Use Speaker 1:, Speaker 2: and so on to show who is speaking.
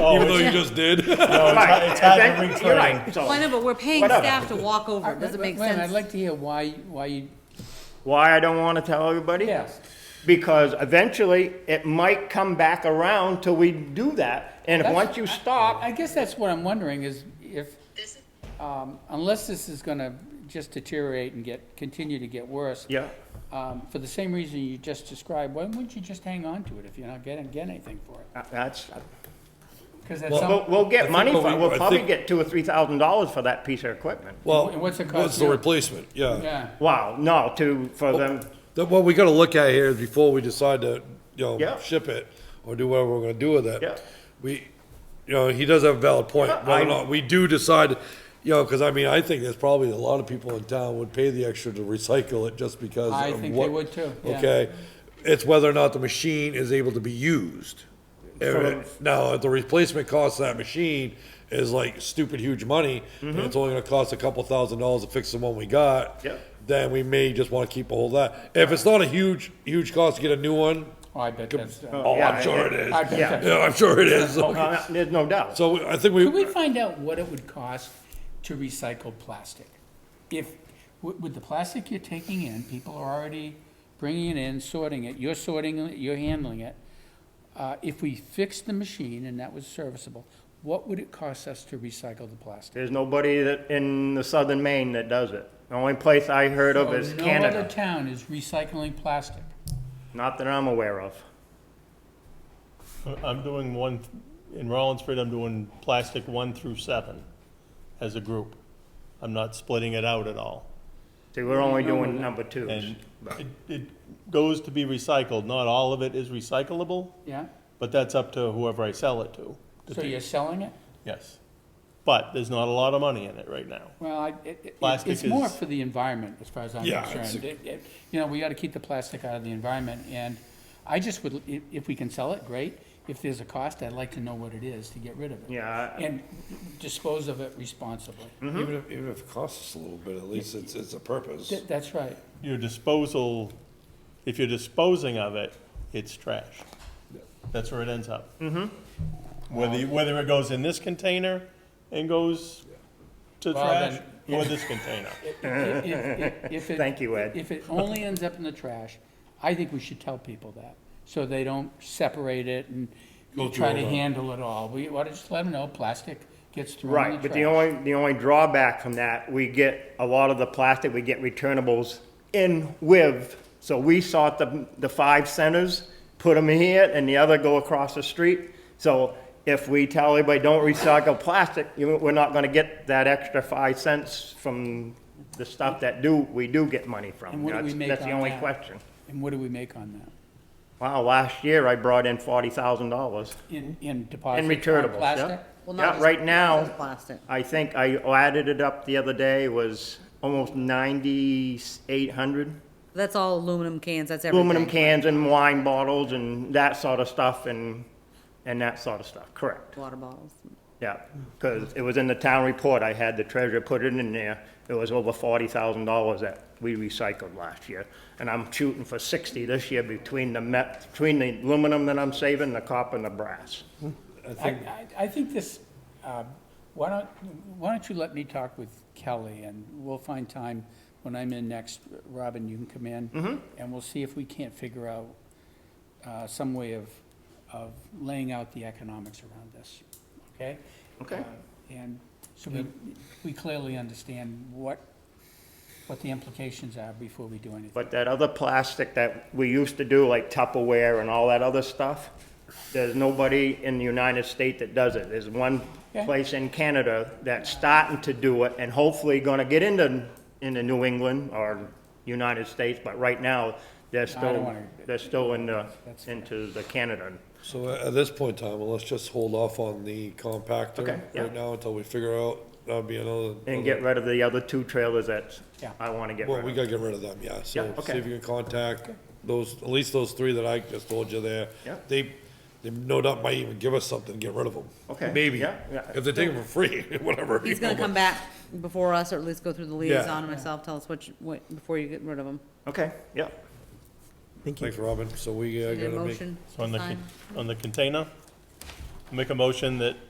Speaker 1: Even though
Speaker 2: it's-
Speaker 1: you just did.
Speaker 2: No, it's hi- it's hard to
Speaker 3: You're
Speaker 2: reclaim.
Speaker 3: right, so
Speaker 4: Why not, but we're paying
Speaker 3: Whatever.
Speaker 4: staff to walk over, does it make
Speaker 5: Wait a minute, I'd
Speaker 4: sense?
Speaker 5: like to hear why, why you,
Speaker 3: why I don't wanna tell everybody?
Speaker 5: yes.
Speaker 3: Because eventually, it might come back around till we do that, and if,
Speaker 5: That's-
Speaker 3: once you stop,
Speaker 5: I guess that's what I'm wondering is if, um, unless this is gonna just deteriorate and get, continue to get worse.
Speaker 3: yeah.
Speaker 5: Um, for the same reason you just described, why wouldn't you just hang on to it if you're not getting, getting anything for it?
Speaker 3: Uh, That's,
Speaker 5: Cause that's
Speaker 3: we'll,
Speaker 5: some,
Speaker 3: we'll get
Speaker 1: think
Speaker 3: money
Speaker 1: what
Speaker 3: for,
Speaker 1: we-
Speaker 3: we'll
Speaker 1: I
Speaker 3: probably
Speaker 1: think-
Speaker 3: get two or three thousand dollars for that piece of equipment.
Speaker 1: Well,
Speaker 5: And what's it cost
Speaker 1: what's the
Speaker 5: you?
Speaker 1: replacement? Yeah.
Speaker 5: yeah,
Speaker 3: Wow, no, to, for
Speaker 1: Oh.
Speaker 3: them,
Speaker 1: The- What we gotta look at here is before we decide to, you know,
Speaker 3: Yeah.
Speaker 1: ship it or do whatever we're gonna do with
Speaker 3: Yeah.
Speaker 1: it. We, you know, he does have a valid point.
Speaker 3: Yeah,
Speaker 1: Whether or
Speaker 3: I-
Speaker 1: not we do decide, you know, cause I mean, I think there's probably a lot of people in town would pay the extra to recycle it just because
Speaker 5: I
Speaker 1: of
Speaker 5: think
Speaker 1: what-
Speaker 5: they would too, yeah.
Speaker 1: Okay, it's whether or not the machine is able to be used.
Speaker 3: So-
Speaker 1: Now, if the replacement cost of that machine is like stupid huge money,
Speaker 3: Mm-hmm.
Speaker 1: and it's only gonna cost a couple thousand dollars to fix the one we got.
Speaker 3: Yeah.
Speaker 1: Then we may just wanna keep a hold of that. If it's not a huge, huge cost to get a new one,
Speaker 5: oh, I bet that's, uh,
Speaker 1: oh,
Speaker 3: yeah,
Speaker 1: I'm sure it is.
Speaker 5: I bet
Speaker 3: Yeah.
Speaker 5: that's.
Speaker 1: Yeah, I'm sure it is.
Speaker 3: no, no, there's no doubt.
Speaker 1: So I think
Speaker 5: Could
Speaker 1: we,
Speaker 5: we find out what it would cost to recycle plastic? If, with with the plastic you're taking in, people are already bringing it in, sorting it, you're sorting it, you're handling it. Uh, If we fixed the machine and that was serviceable, what would it cost us to recycle the plastic?
Speaker 3: There's nobody that, in the southern Maine that does it. The only place I heard of is
Speaker 5: So Oh, No other
Speaker 3: Canada,
Speaker 5: town is recycling plastic.
Speaker 3: not that I'm aware of.
Speaker 2: I'm doing one, in Rollinsford, I'm doing plastic one through seven as a group. I'm not splitting it out at all.
Speaker 3: See, we're only doing number twos.
Speaker 2: And it, it goes to be recycled. Not all of it is recyclable,
Speaker 5: Yeah?
Speaker 2: but that's up to whoever I sell it to.
Speaker 5: So you're selling it?
Speaker 2: Yes. But there's not a lot of money in it right now.
Speaker 5: Well, I- it- it- it-
Speaker 2: Plastic
Speaker 5: it's more
Speaker 2: is-
Speaker 5: for the environment, as far as I'm
Speaker 1: Yeah,
Speaker 5: concerned.
Speaker 1: it's-
Speaker 5: It- it- You know, we gotta keep the plastic out of the environment, and I just would, if, if we can sell it, great. If there's a cost, I'd like to know what it is to get rid of it.
Speaker 3: Yeah, I- Mm.
Speaker 5: And dispose of it responsibly.
Speaker 1: even
Speaker 3: Mm-hmm.
Speaker 1: if, even if it costs us a little bit, at least it's, it's a purpose.
Speaker 5: Th- That's right.
Speaker 2: Your disposal, if you're disposing of it, it's trash. That's where it ends up. Mm-hmm. Whether, you- whether it goes in this container and goes to
Speaker 5: Well,
Speaker 2: trash,
Speaker 5: then-
Speaker 2: or this container.
Speaker 5: If- if- if it-
Speaker 3: Thank you, Ed.
Speaker 5: If it only ends up in the trash, I think we should tell people that, so they don't separate it and
Speaker 1: Go
Speaker 5: try
Speaker 1: through
Speaker 5: to
Speaker 1: all that.
Speaker 5: handle it all. We ought to just let them know, plastic gets thrown
Speaker 3: Right,
Speaker 5: in the trash.
Speaker 3: but the only, the only drawback from that, we get a lot of the plastic, we get returnables in with. So we sought the, the five centers, put them here, and the other go across the street. So if we tell everybody, don't recycle plastic, you, we're not gonna get that extra five cents from the stuff that do, we do get money from.
Speaker 5: And what do we
Speaker 3: That's-
Speaker 5: make
Speaker 3: That's the
Speaker 5: on
Speaker 3: only
Speaker 5: that?
Speaker 3: question.
Speaker 5: And what do we make on that?
Speaker 3: Wow, last year I brought in forty thousand dollars
Speaker 5: In, in deposits?
Speaker 3: in
Speaker 5: on
Speaker 3: returnables, yeah.
Speaker 5: plastic?
Speaker 4: Well, not
Speaker 3: Yeah,
Speaker 4: just-
Speaker 3: right now.
Speaker 4: not just Plastic.
Speaker 3: I think I added it up the other day, was almost ninety-eight hundred.
Speaker 4: That's all aluminum cans, that's everything.
Speaker 3: Aluminum cans and wine bottles and that sort of stuff and, and that sort of stuff, correct.
Speaker 4: Water bottles.
Speaker 3: Yeah, because it was in the town report, I had the treasurer put it in there. It was over forty thousand dollars that we recycled last year. And I'm shooting for sixty this year between the met, between the aluminum that I'm saving, the copper and the brass.
Speaker 5: I, I, I think this, um, why don't, why don't you let me talk with Kelly, and we'll find time when I'm in next, Robin, you can come in. And we'll see if we can't figure out, uh, some way of, of laying out the economics around this, okay?
Speaker 3: Okay.
Speaker 5: Uh, And so we, we clearly understand what, what the implications are before we do anything.
Speaker 3: But that other plastic that we used to do, like Tupperware and all that other stuff, there's nobody in the United States that does it. There's one
Speaker 5: Okay.
Speaker 3: place in Canada that's starting to do it and hopefully gonna get into, into New England or United States, but right now, they're still,
Speaker 5: wanna-
Speaker 3: they're still in the,
Speaker 5: That's-
Speaker 3: into the Canada.
Speaker 1: So at this point in time, well, let's just hold off on the compactor
Speaker 3: Okay, yeah.
Speaker 1: right now until we figure out, that'll be another.
Speaker 3: And get rid of the other two trailers that
Speaker 5: Yeah.
Speaker 3: I wanna get
Speaker 1: Well, we
Speaker 3: rid of.
Speaker 1: gotta get rid of them, yeah, so
Speaker 3: Yeah,
Speaker 1: see
Speaker 3: okay.
Speaker 1: if you can contact those, at least those three that I just told you there.
Speaker 3: Yeah.
Speaker 1: They, they no doubt might even give us something to get rid of them.
Speaker 3: Okay,
Speaker 1: Maybe,
Speaker 3: yeah, yeah.
Speaker 1: if they take them for free, whatever.
Speaker 4: He's
Speaker 1: you
Speaker 4: gonna
Speaker 1: know,
Speaker 4: come
Speaker 1: but-
Speaker 4: back before us, or at least go through the liaison and myself, tell us which, what, before you get rid of them.
Speaker 3: Okay, yeah.
Speaker 1: Thanks, Robin, so we uh,
Speaker 4: Need a
Speaker 1: gotta make,
Speaker 4: motion?
Speaker 2: So on the,
Speaker 4: Sign.
Speaker 2: con- on the container, Make a motion that